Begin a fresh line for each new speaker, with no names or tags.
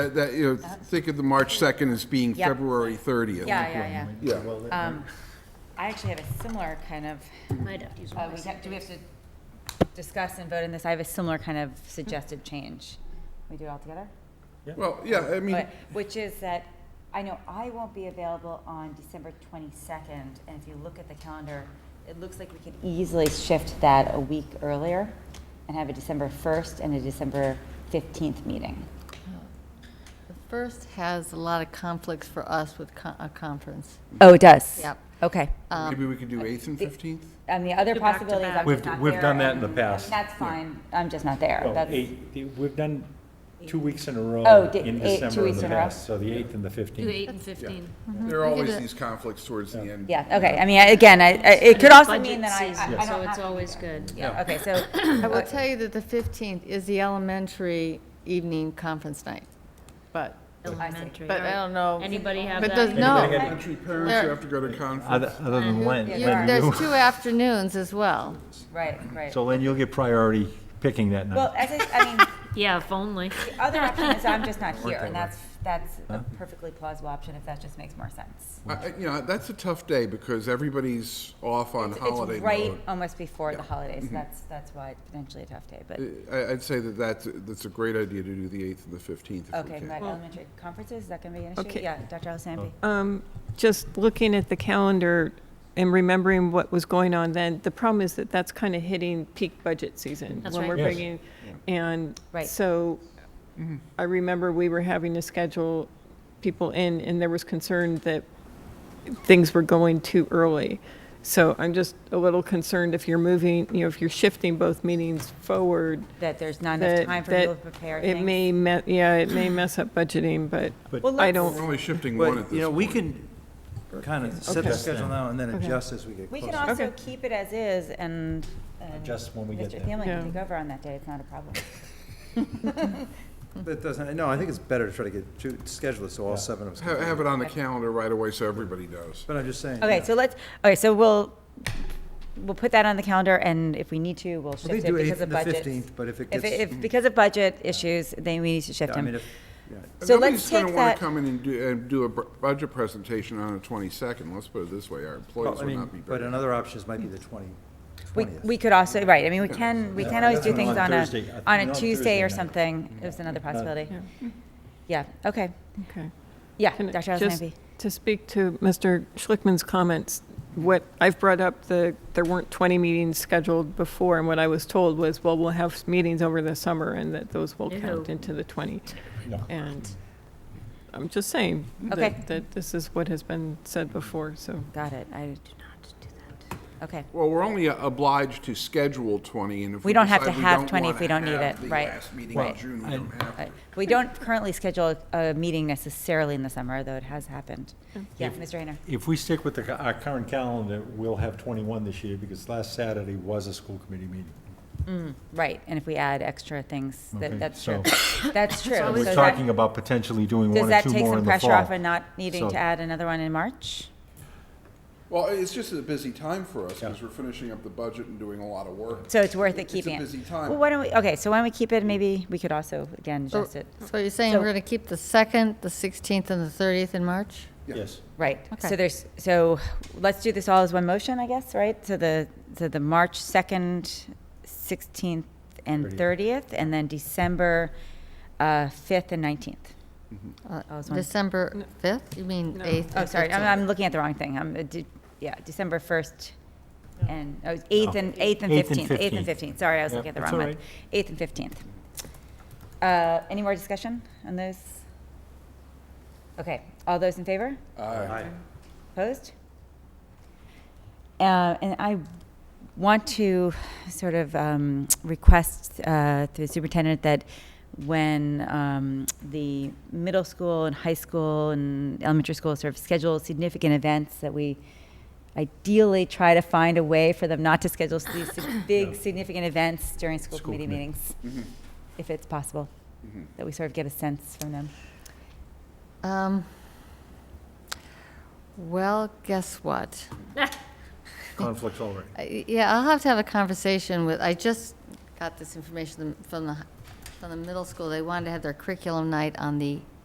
That- That, you know, think of the March 2nd as being
Uh-huh. Yep.
February 30th.
Yeah, yeah, yeah. Um,
Yeah.
I actually have a similar kind of, uh, we have, do we have to discuss and vote on this? I have a similar kind of suggested change. We do it all together?
Well, yeah, I mean,
But, which is that, I know I won't be available on December twenty-second, and if you look at the calendar, it looks like we could easily shift that a week earlier and have a December first and a December fifteenth meeting.
The first has a lot of conflicts for us with co- a conference.
Oh, it does?
Yep.
Okay.
maybe we could do 8th and 15th?
And the other possibility is I'm
We've-
just not
we've
there,
done that in the
and
past.
That's fine, I'm just not there.
Well,
That's-
eight- the- We've done two weeks in a
Oh,
row
di-
in
eight- two
December in
weeks
the
in a row.
past, so the 8th and the 15th.
and 15.
Mm-hmm.
There are
We could
always
do-
these conflicts towards the end.
Yeah, okay, I mean, I- again, I, I- it could also
Budget
mean that I, I- I
season,
don't have.
So it's
to be
always
there.
good.
Yeah, okay, so, uh, I
I will
would-
tell you that the 15th is the elementary evening conference night, but,
Elementary.
but I don't
um,
know.
Anybody have
But
that?
does, no,
Elementary parents who
There-
have to go to
Other
conference.
other than Len,
Yeah, there
Len,
there's
you-
two afternoons as well.
right, right.
so Len, you'll get priority picking that
Well,
night.
as I, I mean,
Yeah, if only.
the other option is I'm just not here, and that's, that's a perfectly plausible option if that just makes more sense.
I- I- You know, that's a tough day because everybody's off on
It's-
holiday
It's right
mode. Mm-hmm.
almost before the holidays, that's, that's why it's potentially a tough day, but,
I- I'd say that that's, that's a great idea to do the 8th and the 15th if we
okay,
can.
but elementary conferences, is that gonna be an issue?
Okay.
Yeah, Dr. Alessandri?
Oh.
Um, Just looking at the calendar and remembering what was going on then, the problem is that that's kind of hitting peak budget season.
That's
When
right.
we're
Yes.
bringing, and
Right. Mm-hmm.
so I remember we were having to schedule people in, and there was concern that things were going too early. So I'm just a little concerned if you're moving, you know, if you're shifting both meetings forward.
That there's not enough
that-
time for
that
people to prepare things?
It may, me- yeah, it may mess up budgeting, but
But-
I
We're
don't,
only shifting one at
But, you
this
know, we
point.
can kind of set the
Okay.
schedule now and then adjust as we get
We
closer.
can also
Okay.
keep it as is and. and
Adjust when we get
Mr.
there.
Thielen
Yeah.
can take over on that day, it's not a problem.
That doesn't, no, I think it's better to try to get, to schedule it so all seven of us.
Ha-
can-
Have it on the calendar right away so everybody knows.
But I'm just saying.
Okay,
yeah.
so let's, okay, so we'll, we'll put that on the calendar and if we need to, we'll
Well, They
shift it
do
because
8th
of
and the
budgets.
15th, but if it
If,
gets.
it- if, because of budget issues, then we need to shift
I mean,
them.
if, yeah.
So
Nobody's
let's take
going to want
that,
to come in and do, and do a br- budget presentation on the 22nd. Let's put it this way, our
Well,
employees
I
will not be
mean, but
prepared.
another option is might be the 20,
we,
20th.
we could also, right, I mean, we can, we
Yeah,
can always do
that's
things
on
on a,
Thursday. I
on
think
a
on
Tuesday
Thursday
or
night.
something, is another possibility. Yeah, okay,
okay.
yeah,
Can I-
Dr.
just
Alessandri.
To speak to Mr. Schlickman's comments, what I've brought up, the, there weren't 20 meetings scheduled before, and what I was told was, well, we'll have meetings over the summer, and that those will count
Ew.
into the 20.
No.
And I'm just saying
Okay.
that, that this is what has been said before, so.
Got it, I do not do that. Okay.
uh,
Well, we're only obliged to schedule 20, and if
We
we
don't have to
decide we
have
don't
20 if
wanna
we don't need
have
it,
the
right.
last meeting in
Right.
June, we
I-
don't have
Uh,
to.
We don't currently schedule a a meeting necessarily in the summer, though it has happened. Yeah, Mr. Hayner.
If we stick with the ca- our current calendar, we'll have 21 this year because last Saturday was a school committee meeting.
Right, and if we add extra things, that-
Okay,
that's
so-
true. That's true.
So
So
we're
that-
talking about potentially doing one
Does
or
that
two
take
more
some
in the
pressure off
fall.
and not needing to
So-
add another one in March?
Well, it's just a busy time for us, because
Yeah.
we're finishing up the budget and doing a lot of work.
So it's worth it
It's a
keeping it?
busy time.
Well, why don't we, okay, so why don't we keep it, maybe we could also, again,
So
adjust it.
so you're saying
So-
we're going to keep the 2nd, the 16th, and the 30th in March?
Yeah.
Yes.
Right, so
Okay.
there's, so let's do this all as one motion, I guess, right? So the, so the March 2nd, 16th, and 30th, and then December uh, 5th and 19th.
Uh,
Oh, it's one-
December 5th? You mean 8th?
Oh,
and
sorry,
15th.
I'm, I'm looking at the wrong thing. I'm, uh, de- yeah, December 1st and, oh, 8th and, 8th and
Eighth and
15th. 8th and 15th, sorry, I was
Yeah,
looking at the
that's
wrong
all
one. 8th and 15th. Uh, Any more discussion on those? Okay, all those in favor?
Uh,
Opposed? Uh, And I want to sort of um, request uh, through the superintendent that when um, the middle school and high school and elementary school sort of schedule significant events, that we ideally try to find a way for them not to schedule these sig- big, significant events during school
School
committee
committee.
meetings,
mhm,
if it's possible,
mhm.
that we sort of get a sense from them.
Um, Well, guess what?
Conflicts already.
I- Yeah, I'll have to have a conversation with, I just got this information from the on the middle school, they wanted to have their curriculum night on the